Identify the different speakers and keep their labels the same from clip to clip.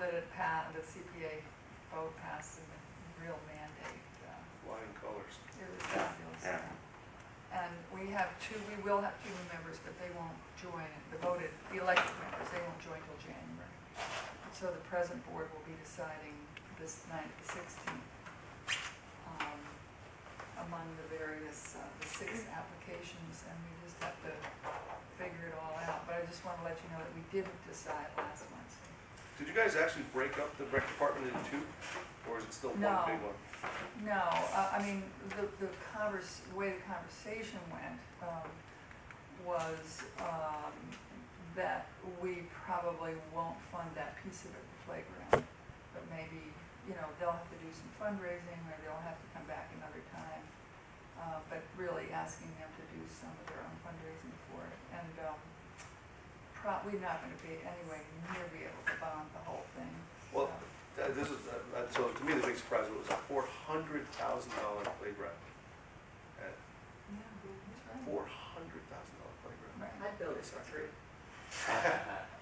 Speaker 1: yeah, the CPA vote passed and the real mandate. uh,
Speaker 2: flying colors.
Speaker 1: It was fabulous.
Speaker 3: Yeah.
Speaker 1: And we have two, we will have two new members, but they won't join, the voted, the elected members, they won't join till January. So the present board will be deciding this night, the sixteenth, um, among the various, uh, the six applications, and we just have to figure it all out. But I just wanna let you know that we didn't decide last Wednesday.
Speaker 2: Did you guys actually break up the rec department into two, or is it still one
Speaker 1: No.
Speaker 2: big one?
Speaker 1: No, uh, I mean, the, the convers, the way the conversation went, um, was, um, that we probably won't fund that piece of it, the playground. But maybe, you know, they'll have to do some fundraising, or they'll have to come back another time. Uh, but really asking them to do some of their own fundraising for it, and, um, probably not gonna be anyway near be able to bond the whole thing.
Speaker 2: Well,
Speaker 1: so.
Speaker 2: Uh, This is, uh, uh, so to me, the big surprise was a four hundred thousand dollar playground.
Speaker 1: Yeah, that's right.
Speaker 2: Four hundred thousand dollar playground.
Speaker 1: Right.
Speaker 4: My bill is three.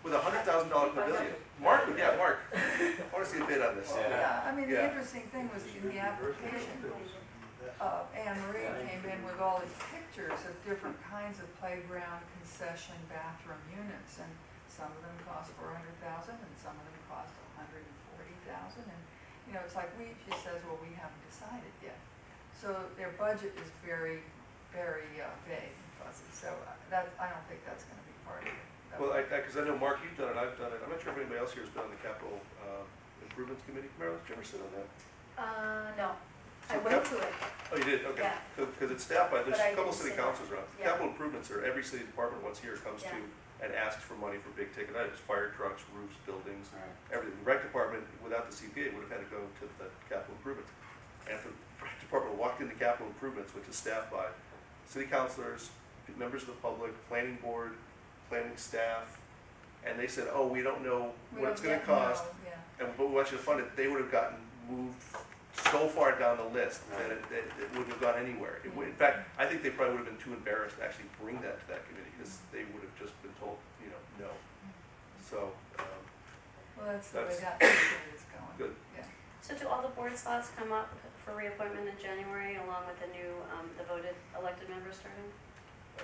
Speaker 2: With a hundred thousand dollar pavilion. Mark, would- yeah, Mark, I wanna see a bid on this.
Speaker 3: Yeah.
Speaker 1: Yeah, I mean, the
Speaker 2: Yeah.
Speaker 1: interesting thing was in the application, uh, Anne Marie came in with all these pictures of different kinds of playground concession bathroom units, and some of them cost four hundred thousand, and some of them cost a hundred and forty thousand, and, you know, it's like, we, she says, well, we haven't decided yet. So their budget is very, very uh, vague and fuzzy, so uh, that, I don't think that's gonna be part of it. That-
Speaker 2: Well, I, I, cause I know Mark, you've done it, I've done it, I'm not sure if anybody else here has been on the capital, uh, improvements committee, Marilyn, did you ever sit on that?
Speaker 5: Uh, no, I
Speaker 2: So
Speaker 5: went
Speaker 2: cap-
Speaker 5: to it,
Speaker 2: Oh, you did, okay.
Speaker 5: Yeah.
Speaker 2: Cause, 'cause it's staffed by, there's
Speaker 5: But
Speaker 2: a
Speaker 5: I
Speaker 2: couple
Speaker 5: didn't
Speaker 2: city
Speaker 5: sit on
Speaker 2: councils around.
Speaker 5: Yeah.
Speaker 2: Capital improvements are, every city department once a year comes to
Speaker 5: Yeah.
Speaker 2: and asks for money for big ticket items, fire trucks, roofs, buildings,
Speaker 3: All right.
Speaker 2: everything. The Rec department, without the CPA, would have had to go to the capital improvements. And if the rec department walked into capital improvements, which is staffed by city councilors, members of the public, planning board, planning staff, and they said, oh, we don't know
Speaker 1: We
Speaker 2: what it's
Speaker 1: don't yet
Speaker 2: gonna cost,
Speaker 1: know, Yeah.
Speaker 2: and but we want you to fund it, they would have gotten moved so far down the list that it, that it wouldn't have gone anywhere. It would, in fact, I think they probably would have been too embarrassed to actually bring that to that committee, because they would have just been told, you know, no.
Speaker 1: Mm-hmm.
Speaker 2: So, um,
Speaker 1: Well, that's the way
Speaker 2: That's-
Speaker 1: that period is going.
Speaker 2: Good.
Speaker 1: Yeah.
Speaker 6: So do all the board slots come up for reappointment in January along with the new, um, the voted elected members starting?
Speaker 2: uh,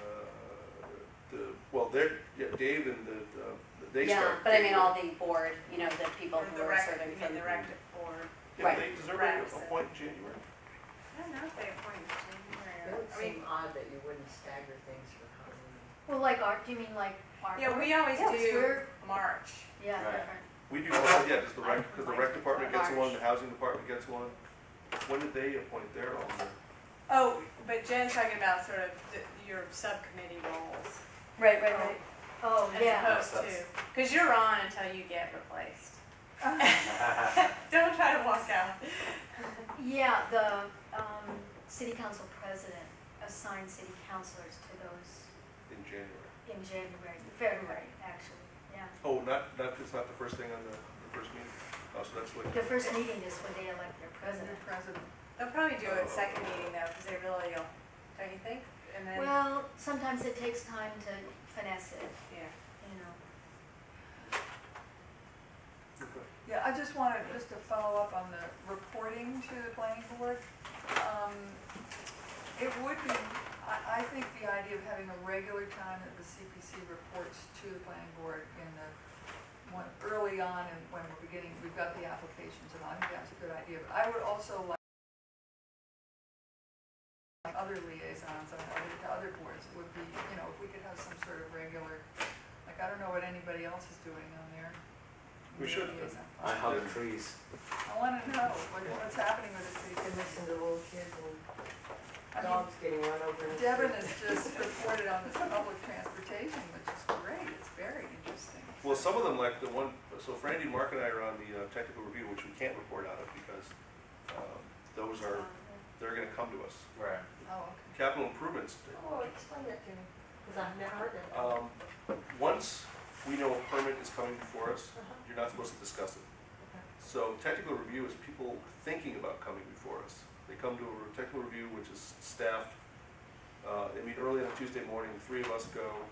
Speaker 2: the, well, they're, yeah, Dave and the, uh, they start.
Speaker 6: Yeah, but I mean all the board, you know, the people who
Speaker 4: The
Speaker 6: are
Speaker 4: rec,
Speaker 6: serving
Speaker 4: you
Speaker 6: from.
Speaker 4: mean the rec or,
Speaker 2: Yeah, they deserve a
Speaker 4: Reps
Speaker 2: a
Speaker 4: and-
Speaker 2: point in January.
Speaker 4: I don't know if they appoint It January. would I mean, seem odd that you wouldn't stagger things for Halloween.
Speaker 5: Well, like art, do you mean like art?
Speaker 4: yeah, we always
Speaker 5: Yes,
Speaker 4: do
Speaker 5: we're-
Speaker 4: March.
Speaker 5: Yeah,
Speaker 3: Right.
Speaker 5: different.
Speaker 2: We do, yeah, just the rec, because the rec
Speaker 4: March.
Speaker 2: department gets one, the housing department gets one. When did they appoint their own?
Speaker 4: Oh, but Jen's talking about sort of the- your subcommittee roles
Speaker 6: Right, right, right.
Speaker 5: Oh, yeah.
Speaker 4: as opposed to, because you're on until you get replaced. Don't try to walk out.
Speaker 5: Yeah, the, um, city council president assigned city councilors to those
Speaker 2: In January.
Speaker 5: in January, February, actually, yeah.
Speaker 2: Oh, not, not, it's not the first thing on the, the first meeting? Oh, so that's what,
Speaker 5: The first meeting is when they elect their president.
Speaker 1: President, President,
Speaker 4: They'll probably do it second meeting though, because they really, don't don't you think? And then, yeah.
Speaker 5: Well, sometimes it takes time to finesse it, you know.
Speaker 2: okay.
Speaker 1: Yeah, I just wanted, just to follow up on the reporting to the planning board. Um, It would be, I, I think the idea of having a regular time that the CPC reports to the planning board in the, when, early on and when we're beginning, we've got the applications and I think that's a good idea. But I would also like other liaisons on other, to other boards would be, you know, if we could have some sort of regular, like, I don't know what anybody else is doing on there.
Speaker 2: We should.
Speaker 3: I hug the trees.
Speaker 1: I wanna know what, what's happening with the city commission, the little kids and. I mean,
Speaker 4: Dogs getting run over. in the
Speaker 1: Devin
Speaker 4: street.
Speaker 1: has just reported on this public transportation, which is great, it's very interesting. Oh,
Speaker 2: Well, some of them, like the one, so Frandy, Mark and I are on the uh, technical review, which we can't report out of because, um, those are,
Speaker 5: Um,
Speaker 2: they're gonna come to us.
Speaker 3: Right.
Speaker 1: Oh, okay.
Speaker 2: Capital improvements,
Speaker 4: Oh, explain that to me, because I've never heard that.
Speaker 2: um, once we know a permit is coming before us, you're not supposed to discuss it. So technical review is people thinking about coming before us. They come to a re- technical review, which is staffed, uh, they meet early on a Tuesday morning, the three of us go,